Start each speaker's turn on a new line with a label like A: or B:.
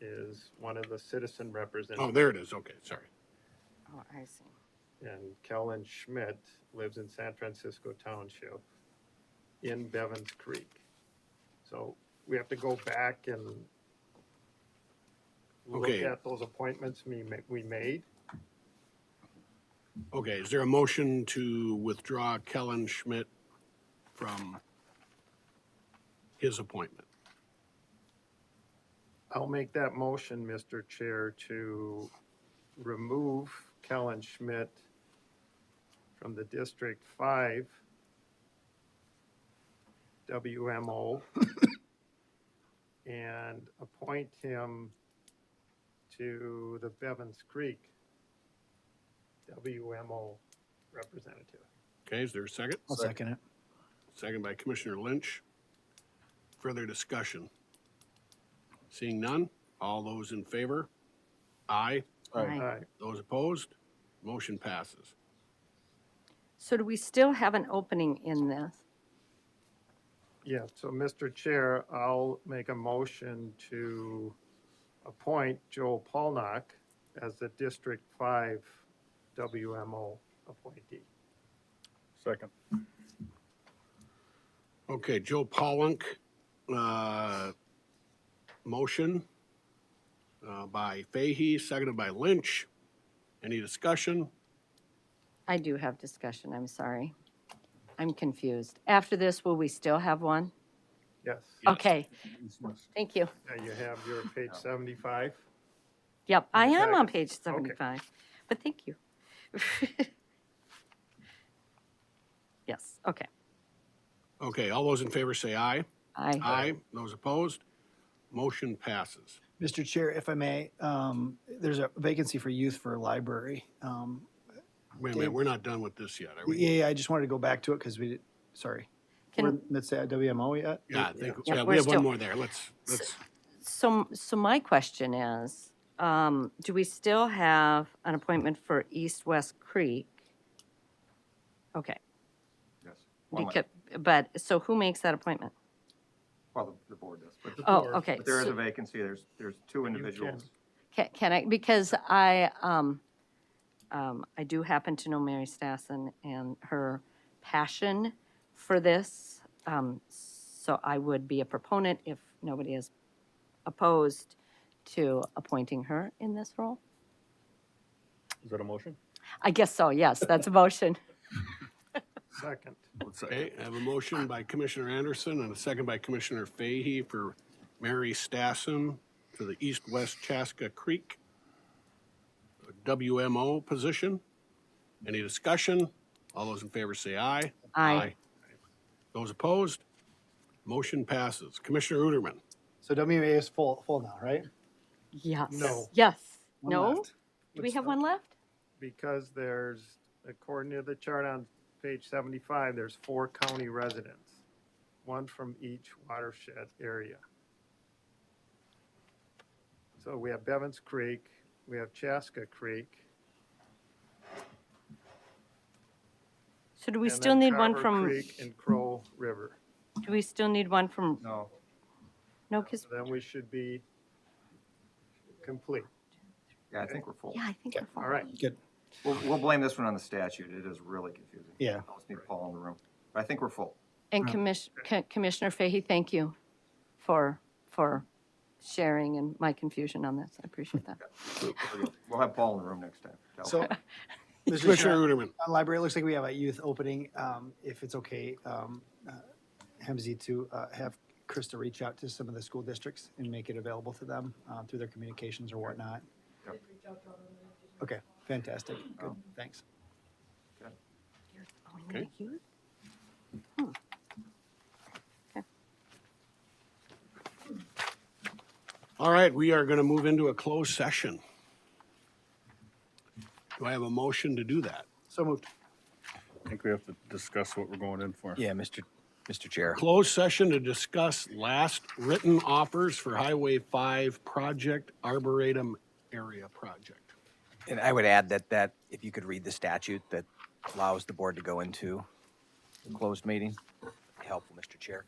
A: is one of the citizen
B: Oh,
A: representatives,
B: there it is. Okay, sorry.
C: Oh, I see.
A: and Kellen Schmidt lives in San Francisco Township in Bevins Creek. So we have to go back and look
B: Okay.
A: at those appointments we, ma- we made.
B: Okay, is there a motion to withdraw Kellen Schmidt from his appointment?
A: I'll make that motion, Mr. Chair, to remove Kellen Schmidt from the District Five WMO and appoint him to the Bevins Creek WMO representative.
B: Okay, is there a second?
D: I'll second it.
B: Second by Commissioner Lynch. Further discussion? Seeing none, all those in favor? Aye.
C: Aye.
A: Aye.
B: Those opposed? Motion passes.
C: So do we still have an opening in this?
A: Yeah, so Mr. Chair, I'll make a motion to appoint Joel Polnack as the District Five WMO appointee.
E: Second.
B: Okay, Joe Pollock, uh, motion, uh, by Fahy, seconded by Lynch. Any discussion?
C: I do have discussion, I'm sorry. I'm confused. After this, will we still have one?
A: Yes,
B: Yes.
C: Okay, thank you.
A: now you have your page seventy-five.
C: Yep, I am on
A: Exactly.
C: page 75, but thank you. Yes, okay.
B: Okay, all those in favor say aye.
C: I,
B: Aye. Those opposed? Motion passes.
D: Mr. Chair, if I may, um, there's a vacancy for youth for a library. Um,
B: Wait a minute, we're not done with this yet, are we?
D: yeah, yeah, I just wanted to go back to it because we, did- sorry. We're
C: can,
D: Let's say WMO yet?
B: Yeah, I think,
C: Yeah,
B: yeah,
C: we're
B: we have one
C: still-
B: more there. Let's, let's,
C: so, so my question is, um, do we still have an appointment for East West Creek? Okay,
E: Yes.
C: becau- but, so who makes that appointment?
E: Well, the- the board does, but the-
C: Oh,
A: Or-
C: okay.
E: but there is
C: so-
E: a vacancy. There's, there's two individuals.
C: Can, can I, because I, um, um, I do happen to know Mary Stassen and her passion for this. Um, so I would be a proponent if nobody is opposed to appointing her in this role.
E: Is that a motion?
C: I guess so, yes, that's a motion.
A: Second,
B: okay, I have a motion by Commissioner Anderson and a second by Commissioner Fahy for Mary Stassen to the East-West Chaska Creek uh, WMO position. Any discussion? All those in favor say aye.
C: I,
B: Those opposed? Motion passes. Commissioner Uterman,
D: So WMA is full, full now, right?
C: yes.
A: No.
C: Yes,
D: One
C: no?
D: left.
C: Do we have one left?
A: because there's, according to the chart on page seventy-five, there's four county residents, one from each watershed area. So we have Bevins Creek, we have Chaska Creek,
C: So do we
A: and
C: still
A: then
C: need one
A: Carver
C: from,
A: Creek and Crow River.
C: do we still need one from,
E: No.
C: no, because,
A: So Then we should be complete.
E: Yeah, I think we're full.
C: yeah, I think we're fine.
A: All right,
D: Good.
E: We'll, we'll blame this one on the statute. It is really confusing.
D: Yeah.
E: I always need Paul in the room. But I think we're full.
C: And Commiss- Co- Commissioner Fahy, thank you for, for sharing and my confusion on this. I appreciate that.
E: We'll have Paul in the room next time.
D: So, Mr.
B: Commissioner
D: Chair,
B: Uterman.
D: on library, it looks like we have a youth opening. Um, if it's okay, um, uh, Hemsey to, uh, have Krista reach out to some of the school districts and make it available to them, uh, through their communications or whatnot.
E: Yep.
D: Okay, fantastic. Good,
C: Oh.
D: thanks.
B: Okay. All right, we are going to move into a closed session. Do I have a motion to do that?
D: So moved.
F: I think we have to discuss what we're going in for.
G: Yeah, Mr. Mr. Chair.
B: Closed session to discuss last written offers for Highway 5 project Arboretum Area Project.
G: And I would add that that, if you could read the statute that allows the board to go into a closed meeting, helpful, Mr. Chair.